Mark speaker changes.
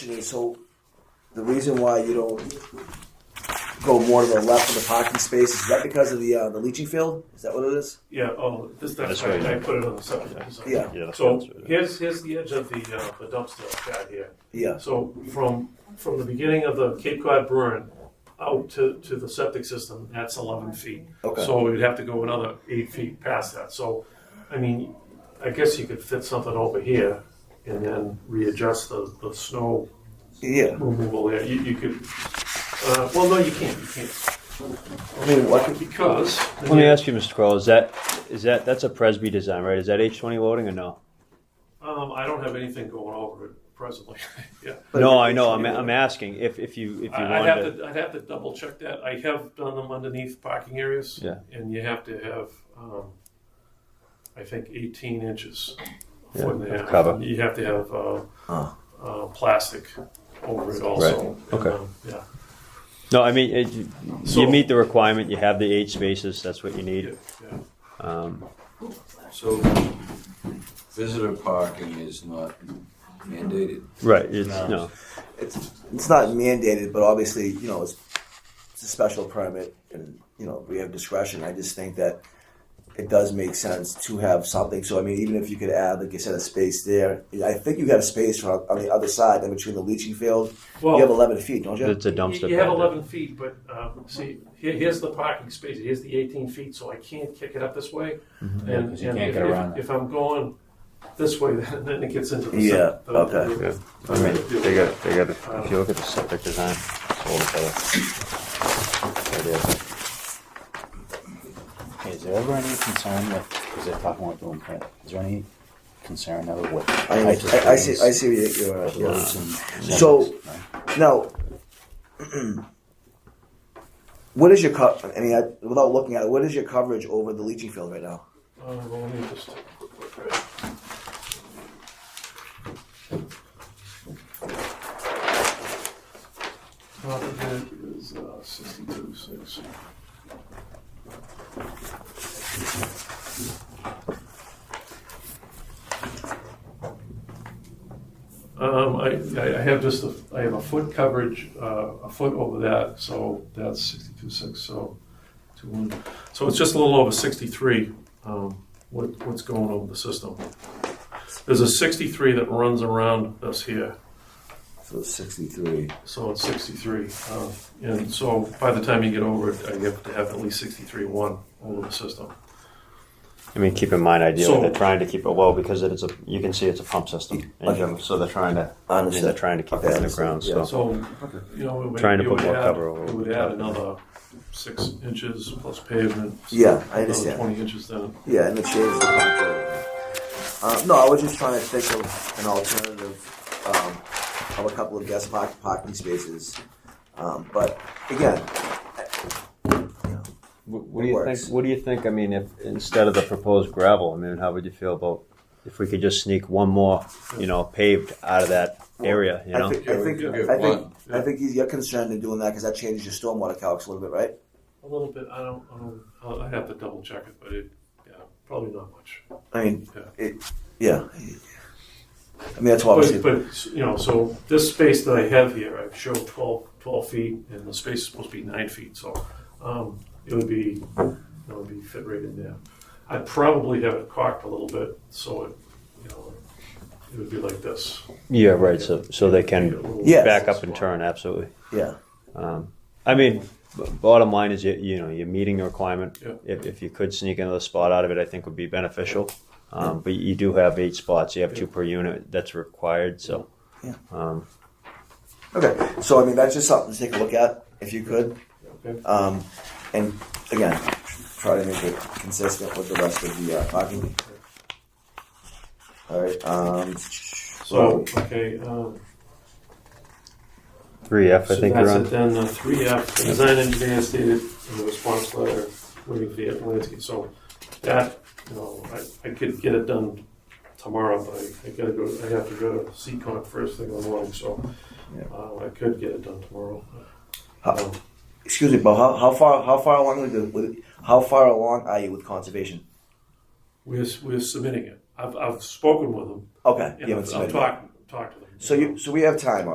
Speaker 1: is, So the reason why you don't go more to the left of the parking space, is that because of the, uh, the leaching field? Is that what it is?
Speaker 2: Yeah, oh, this, that's
Speaker 3: That's
Speaker 2: right,
Speaker 3: right.
Speaker 2: I put it on the subject. I'm sorry.
Speaker 1: Yeah.
Speaker 3: Yeah, that's
Speaker 2: So
Speaker 3: right, that's right.
Speaker 2: here's, here's the edge of the, uh, the dumpster pad here.
Speaker 1: Yeah,
Speaker 2: So from, from the beginning of the Cape Cod burn out to, to the septic system, that's eleven feet.
Speaker 1: Okay.
Speaker 2: So we'd have to go another eight feet past that, so, I mean, I guess you could fit something over here and then readjust the, the snow
Speaker 1: yeah.
Speaker 2: removal there, you, you could, uh, well, no, you can't, you can't,
Speaker 1: I mean, what,
Speaker 2: because.
Speaker 3: Let me ask you, Mr. Crowell, is that, is that, that's a Presby design, right? Is that H twenty loading or no?
Speaker 2: Um, I don't have anything going over it presently, yeah.
Speaker 3: No, I know, I'm, I'm asking if, if you, if you
Speaker 2: I- I'd have
Speaker 3: wanted to.
Speaker 2: to, I'd have to double check that. I have done them underneath parking areas.
Speaker 3: Yeah.
Speaker 2: And you have to have, um, I think eighteen inches.
Speaker 3: Yeah,
Speaker 2: foot and a
Speaker 3: of
Speaker 2: half.
Speaker 3: cover.
Speaker 2: You have to have, uh,
Speaker 1: Huh.
Speaker 2: uh, plastic over it also. And,
Speaker 3: Okay.
Speaker 2: um, Yeah,
Speaker 3: No, I mean, it- you-
Speaker 2: So-
Speaker 3: you meet the requirement, you have the eight spaces, that's what you
Speaker 2: yeah,
Speaker 3: need.
Speaker 2: yeah.
Speaker 3: Um,
Speaker 4: So visitor parking is not mandated.
Speaker 3: right, it's, no,
Speaker 1: it's, it's not mandated, but obviously, you know, it's, it's a special permit and, you know, we have discretion. I just think that it does make sense to have something. So, I mean, even if you could add, like you said, a space there, I think you got a space from, on the other side, in between the leaching field. You have
Speaker 2: Well,
Speaker 1: eleven feet, don't you?
Speaker 3: it's a dumpster.
Speaker 2: you- You have
Speaker 3: pad.
Speaker 2: eleven feet, but, um, see, here, here's the parking space, here's the eighteen feet, so I can't kick it up this way.
Speaker 3: Mm-hmm.
Speaker 2: And,
Speaker 5: You
Speaker 2: and
Speaker 5: can't
Speaker 2: if,
Speaker 5: get around
Speaker 2: if- if I'm going this way, then then it gets into the.
Speaker 1: Yeah,
Speaker 2: the- the-
Speaker 1: okay.
Speaker 2: the-
Speaker 3: I mean, they got, they got, if you look at the septic design, it's all together. There it is.
Speaker 5: Hey, Is there ever any concern with, because they're talking about doing print, is there any concern ever with?
Speaker 1: I, mean,
Speaker 5: types of
Speaker 1: I, I see. I
Speaker 5: things,
Speaker 1: see. What you're, uh, yeah.
Speaker 5: roofs and-
Speaker 1: So-
Speaker 5: No?
Speaker 1: Now, what is your co- I mean, I, without looking at it, what is your coverage over the leaching field right now?
Speaker 2: Uh, well, let me just take a quick look at it. Top of it is uh, sixty-two six. Um, I, I I have just, a- I have a foot coverage, uh, a foot over that, so that's sixty-two six, so two one. So it's just a little over sixty-three, um, what, what's going on with the system. There's a 63 that runs around us here,
Speaker 1: So sixty-three.
Speaker 2: so it's 63. Um, and so by the time you get over it, uh, you have to have at least 63.1 over the system.
Speaker 3: I mean, keep in mind, ideally,
Speaker 2: So-
Speaker 3: they're trying to keep it low because it is a, you can see it's a pump system. And you- so they're trying to,
Speaker 1: I
Speaker 3: I mean, they're
Speaker 1: understand.
Speaker 3: trying to keep
Speaker 1: Okay,
Speaker 3: it
Speaker 1: I
Speaker 3: underground,
Speaker 1: understand,
Speaker 2: So,
Speaker 3: so.
Speaker 2: you know, it would,
Speaker 3: Oh. Trying to
Speaker 2: it
Speaker 3: put
Speaker 2: would
Speaker 3: more
Speaker 2: add,
Speaker 3: cover over
Speaker 2: it would
Speaker 3: the
Speaker 2: add
Speaker 3: top.
Speaker 2: another six inches plus pavement. so
Speaker 1: Yeah, I
Speaker 2: Another
Speaker 1: understand.
Speaker 2: 20 inches then.
Speaker 1: Yeah, and the change. The contract. uh, no, I was just trying to think of an alternative um, of a couple of guest park, parking spaces. Um, but again,
Speaker 3: Wh- What do
Speaker 1: It
Speaker 3: you
Speaker 1: works.
Speaker 3: think? What do you think? I mean, if instead of the proposed gravel, I mean, how would you feel about if we could just sneak one more, you know, paved out of that area? You
Speaker 1: I
Speaker 3: know,
Speaker 1: think I
Speaker 4: Yeah, we
Speaker 1: think
Speaker 4: could
Speaker 1: I
Speaker 4: get
Speaker 1: think,
Speaker 2: one.
Speaker 1: I think you're concerned in doing that because that changes your stormwater calcs a little bit, right?
Speaker 2: A little bit, I don't, I don't, I'll- I'd have to double check it, but it, yeah, probably not much.
Speaker 1: I mean,
Speaker 2: Yeah.
Speaker 1: it, yeah. I mean, that's why I was.
Speaker 2: But, but, you know, so this space that I have here, I've showed 12, 12 feet, and the space is supposed to be nine feet, so, um, it would be, it would be fit right in there. I'd probably have it cocked a little bit, so it, you know, it would be like this.
Speaker 3: yeah, right. So so they can
Speaker 1: Yes.
Speaker 3: back up and turn. Absolutely.
Speaker 1: Yeah.
Speaker 3: Um, I mean, b- bottom line is you, you know you're meeting the requirement.
Speaker 2: Yeah.
Speaker 3: If, if you could sneak another spot out of it, I think would be beneficial. Um, but you do have eight spots. You have two per unit. That's required. So
Speaker 1: Yeah.
Speaker 3: um,
Speaker 1: Okay. So I mean, that's just something to take a look at if you could,
Speaker 2: Okay.
Speaker 1: um, and again, try to make it consistent with the rest of the uh, parking. All right. Um,
Speaker 2: So, okay, um,
Speaker 3: three F. I
Speaker 2: So
Speaker 3: think
Speaker 2: that's
Speaker 3: you're on.
Speaker 2: it then, the uh, three F, the design engineer stated in the response letter, waiting for the landscape, so that, you know, I, I could get it done tomorrow, but I, I gotta go, I have to go to Seacon first thing in the morning, so,
Speaker 1: Yeah.
Speaker 2: uh, I could get it done tomorrow. Um,
Speaker 1: how, excuse me, but how, how far how far along with, the, with how far along are you with conservation?
Speaker 2: We're, s- we're submitting it, I've, I've spoken with them,
Speaker 1: Okay. You
Speaker 2: and
Speaker 1: haven't
Speaker 2: I've I've
Speaker 1: submitted.
Speaker 2: talked, talked to them.
Speaker 1: So you so we have time.